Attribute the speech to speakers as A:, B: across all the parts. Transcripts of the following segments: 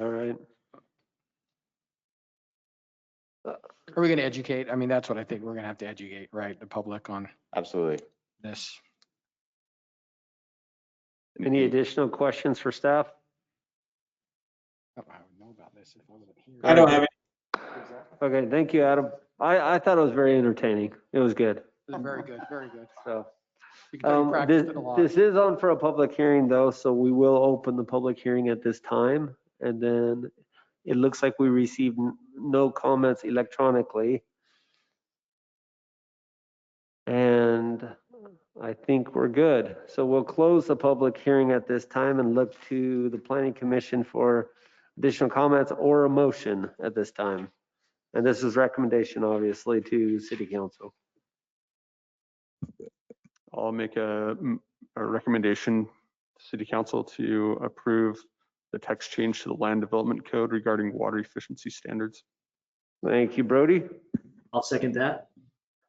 A: All right.
B: Are we going to educate? I mean, that's what I think. We're going to have to educate, right, the public on
C: Absolutely.
B: this.
C: And-
A: Any
C: and-
A: additional questions for staff?
B: I don't know how I would know about this if I wasn't here.
D: I don't have any.
A: Okay, thank you, Adam. I, I thought it was very entertaining. It was good,
B: This is Very good, very good.
A: so.
B: You can tell you
A: Um,
B: practiced
A: This
B: it a lot.
A: this is on for a public hearing though, so we will open the public hearing at this time. And then it looks like we received n- no comments electronically. And I think we're good. So we'll close the public hearing at this time and look to the planning commission for additional comments or a motion at this time. And this is recommendation, obviously, to city council.
E: I'll make a, m- a recommendation to city council to approve the text change to the land development code regarding water efficiency standards.
A: Thank you, Brody.
D: I'll second that.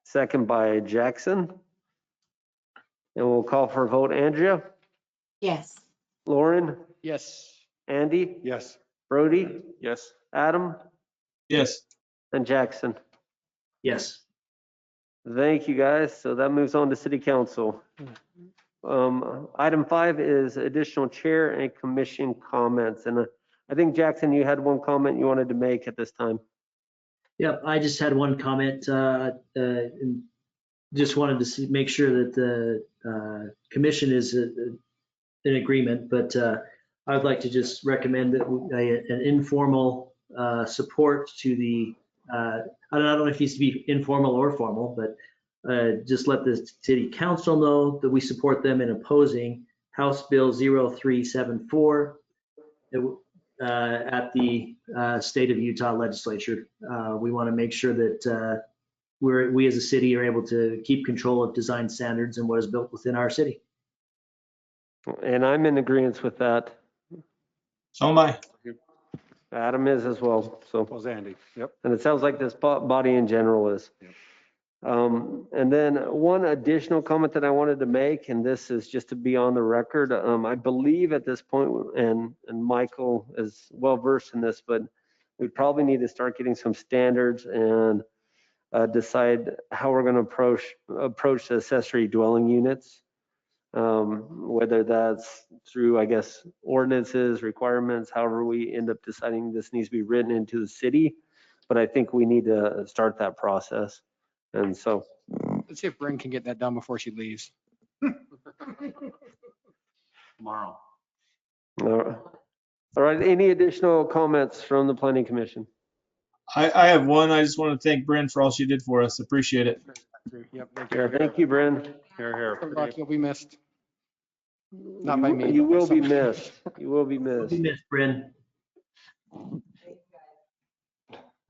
A: Second by Jackson. And we'll call for a vote. Andrea,
F: Yes.
A: Lauren,
B: Yes.
A: Andy,
E: Yes.
A: Brody,
E: Yes.
A: Adam,
D: Yes.
A: and Jackson.
D: Yes.
A: Thank you, guys. So that moves on to city council. Um, Item five is additional chair and commission comments. And uh, I think, Jackson, you had one comment you wanted to make at this time.
D: Yep, I just had one comment, uh, uh, and just wanted to see, make sure that the, uh, commission is uh, in agreement, but, uh, I would like to just recommend that we- a- an informal, uh, support to the, uh, I don't, I don't know if it needs to be informal or formal, but, uh, just let the city council know that we support them in opposing House Bill 0374. It w- uh, at the uh, state of Utah legislature. Uh, We want to make sure that uh, we're, we as a city are able to keep control of design standards and what is built within our city.
A: And I'm in agreement with that.
G: So am I.
A: Adam is as well, so.
E: Was Andy. Yep.
A: And it sounds like this bo- body in general is. Um, and then one additional comment that I wanted to make, and this is just to be on the record. Um, I believe at this point, and, and Michael is well versed in this, but we probably need to start getting some standards and uh, decide how we're going to approach, approach the accessory dwelling units. Um, whether that's through, I guess, ordinances, requirements, however we end up deciding this needs to be written into the city but I think we need to start that process. And so,
B: Let's see if Bryn can get that done before she leaves.
D: Tomorrow.
A: all right, any additional comments from the planning commission?
G: I, I have one. I just want to thank Bryn for all she did for us. Appreciate it.
B: Yep.
A: Thank you, Bryn.
E: Here,
B: Good luck. You'll be missed. Not by me.
A: You
B: but by
A: will be
B: someone.
A: missed. You will be missed.
D: We missed Bryn.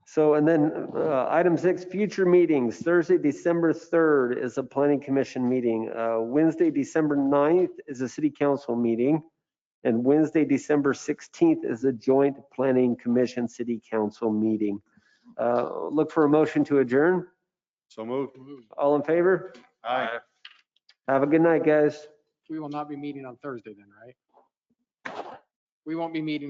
A: So, and then uh, item six, future meetings. Thursday, December 3rd is a planning commission meeting. Uh, Wednesday, December 9th is a city council meeting. And Wednesday, December 16th is a joint planning commission city council meeting. Uh, Look for a motion to adjourn.
E: So moved.
A: All in favor?
E: Aye.
A: Have a good night, guys.
B: We will not be meeting on Thursday then, right? We won't be meeting